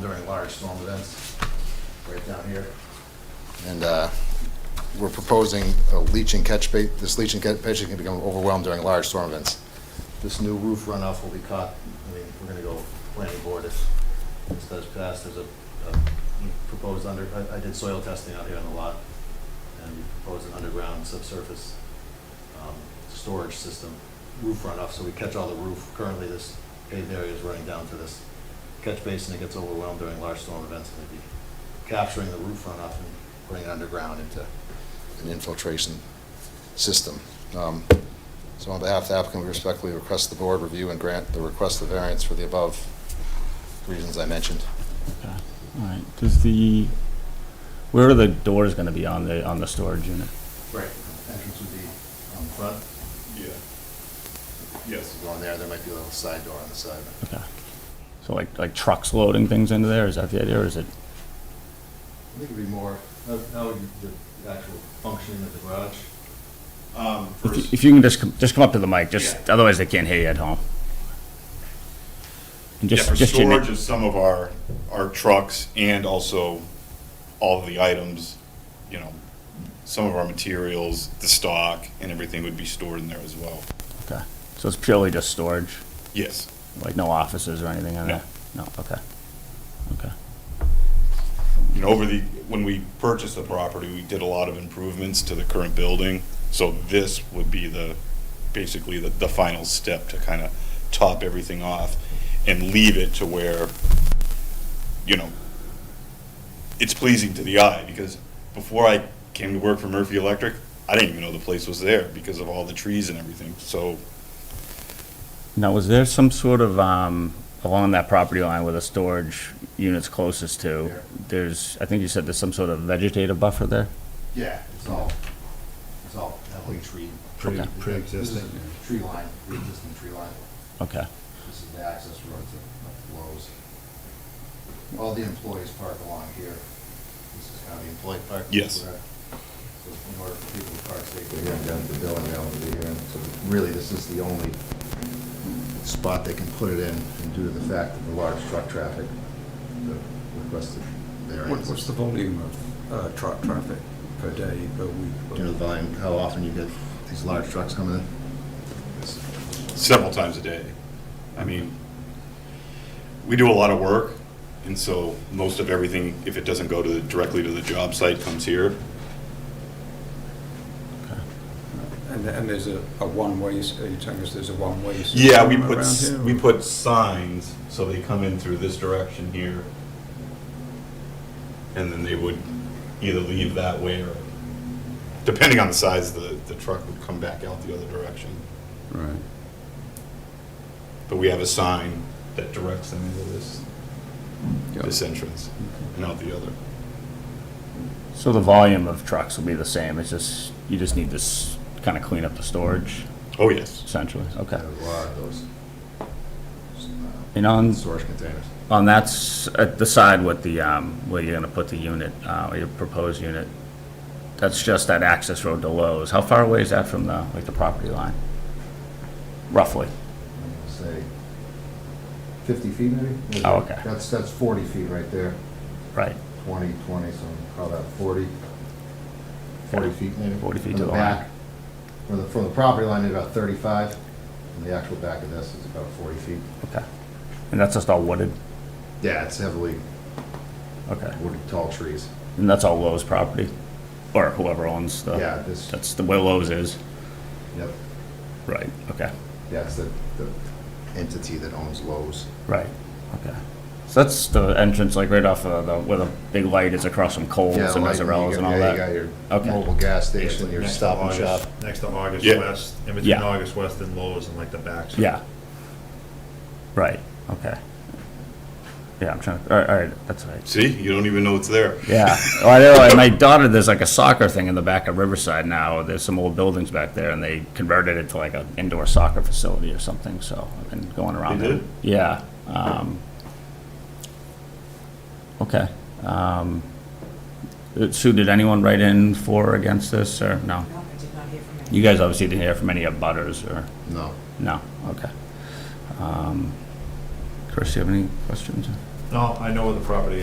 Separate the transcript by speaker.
Speaker 1: during large storm events, right down here. And uh, we're proposing a leach and catch ba, this leach and catch basin can become overwhelmed during large storm events. This new roof runoff will be caught, I mean, we're gonna go planning board if this does pass, there's a, a proposed under, I, I did soil testing out here on the lot, and we proposed an underground subsurface um, storage system, roof runoff, so we catch all the roof. Currently, this paved area is running down to this catch basin that gets overwhelmed during large storm events, and maybe capturing the roof runoff and putting it underground into an infiltration system. Um, So on behalf of the applicant, we respectfully request the board review and grant the request of variance for the above reasons I mentioned.
Speaker 2: All right, does the, where are the doors gonna be on the, on the storage unit?
Speaker 1: Right. Entrance would be on the front,
Speaker 3: Yeah. Yes.
Speaker 1: going there, there might be a little side door on the side.
Speaker 2: Okay. So like, like trucks loading things into there, is that the idea, or is it,
Speaker 1: I think it'd be more, how how would you- the actual functioning of the garage?
Speaker 3: Um,
Speaker 2: if you-
Speaker 3: first,
Speaker 2: if you can just, come- just come up to the mic, just,
Speaker 3: Yeah.
Speaker 2: otherwise they can't hear you at home. And
Speaker 3: yeah,
Speaker 2: just,
Speaker 3: for
Speaker 2: just your na-
Speaker 3: storage of some of our, our trucks and also all of the items, you know, some of our materials, the stock and everything would be stored in there as well.
Speaker 2: Okay, so it's purely just storage,
Speaker 3: Yes.
Speaker 2: like no offices or anything on there? No, okay, okay,
Speaker 3: You know, over the, when we purchased the property, we did a lot of improvements to the current building. So this would be the, basically the, the final step to kind of top everything off and leave it to where, you know, it's pleasing to the eye because before I came to work for Murphy Electric, I didn't even know the place was there because of all the trees and everything. So
Speaker 2: now, was there some sort of, um, along that property line where the storage unit's closest to?
Speaker 1: Here.
Speaker 2: There's, I think you said there's some sort of vegetative buffer there?
Speaker 1: Yeah. It's all, it's all heavily tree.
Speaker 2: Pre-
Speaker 1: This is
Speaker 4: pre-existing.
Speaker 1: Tree line, pre-existing tree line.
Speaker 2: Okay.
Speaker 1: This is the access road to Lowe's. All the employees park along here. This is kind of the employee park.
Speaker 3: Yes.
Speaker 1: Where- So in order for people to park safely, they're down to the building, they're over here. And so Really, this is the only spot they can put it in and due to the fact of the large truck traffic, the requested
Speaker 4: What- What's
Speaker 1: variance.
Speaker 4: the volume of uh, truck traffic per day, per
Speaker 1: Do you know the
Speaker 4: week?
Speaker 1: volume, how often you get these large trucks coming in?
Speaker 3: several times a day. I mean, we do a lot of work, and so most of everything, if it doesn't go to, the- directly to the job site, comes here.
Speaker 4: And, and there's a, a one-way, s- are you telling us there's a one-way? system
Speaker 3: Yeah, we put,
Speaker 4: around
Speaker 3: s-
Speaker 4: here,
Speaker 3: we
Speaker 4: or-
Speaker 3: put signs, so they come in through this direction here. And then they would either leave that way or, depending on the size, the, the truck would come back out the other direction.
Speaker 4: Right.
Speaker 3: But we have a sign that directs them into this,
Speaker 4: Yeah.
Speaker 3: this entrance and out the other.
Speaker 2: So the volume of trucks will be the same, it's just, you just need this, kind of clean up the storage
Speaker 3: Oh, yes.
Speaker 2: essentially, okay.
Speaker 1: There's a lot of those uh,
Speaker 2: And on,
Speaker 1: storage containers.
Speaker 2: on that, s- at the side with the, um, where you're gonna put the unit, uh, your proposed unit, that's just that access road to Lowe's, how far away is that from the, like, the property line? Roughly,
Speaker 1: say, 50 feet maybe?
Speaker 2: Oh, okay.
Speaker 1: That's, that's 40 feet right there,
Speaker 2: right,
Speaker 1: 20, 20, so we call that 40. 40
Speaker 2: Yeah.
Speaker 1: feet maybe?
Speaker 2: 40 feet
Speaker 1: From
Speaker 2: to the line.
Speaker 1: back, From the, from the property line, it's about 35, and the actual back of this is about 40 feet.
Speaker 2: okay. And that's just all wooded,
Speaker 1: Yeah, it's heavily
Speaker 2: okay,
Speaker 1: wooded, tall trees.
Speaker 2: and that's all Lowe's property, or whoever owns the.
Speaker 1: Yeah, this,
Speaker 2: That's the way Lowe's is,
Speaker 1: yep,
Speaker 2: right, okay.
Speaker 1: yeah, it's the, the entity that owns Lowe's.
Speaker 2: Right, okay. So that's the entrance, like right off of the, where the big light is across from
Speaker 1: Yeah,
Speaker 2: Coles and
Speaker 1: like, you got-
Speaker 2: Mazzarella's and all
Speaker 1: yeah,
Speaker 2: that.
Speaker 1: You got
Speaker 2: Okay.
Speaker 1: your mobile gas station,
Speaker 5: Basically,
Speaker 1: your
Speaker 5: next to
Speaker 1: stop and shop.
Speaker 5: August- Next to August
Speaker 3: Yeah.
Speaker 5: West, in between
Speaker 2: Yeah.
Speaker 5: August West and Lowe's and like the backs.
Speaker 2: Yeah. Right, okay. Yeah, I'm trying, to. all right, all right, that's right.
Speaker 3: See, you don't even know it's there.
Speaker 2: Yeah, well, I know, like, my daughter, there's like a soccer thing in the back of Riverside now, there's some old buildings back there, and they converted it to like an indoor soccer facility or something, so I've been going around
Speaker 3: They
Speaker 2: there.
Speaker 3: did?
Speaker 2: Yeah, um, okay, um, Sue, did anyone write in for or against this, or no?
Speaker 6: No, I did not hear from him.
Speaker 2: You guys obviously didn't hear from any of butters or,
Speaker 1: No.
Speaker 2: no, okay. Um, Chris, you have any questions?
Speaker 5: No, Oh, I know where the property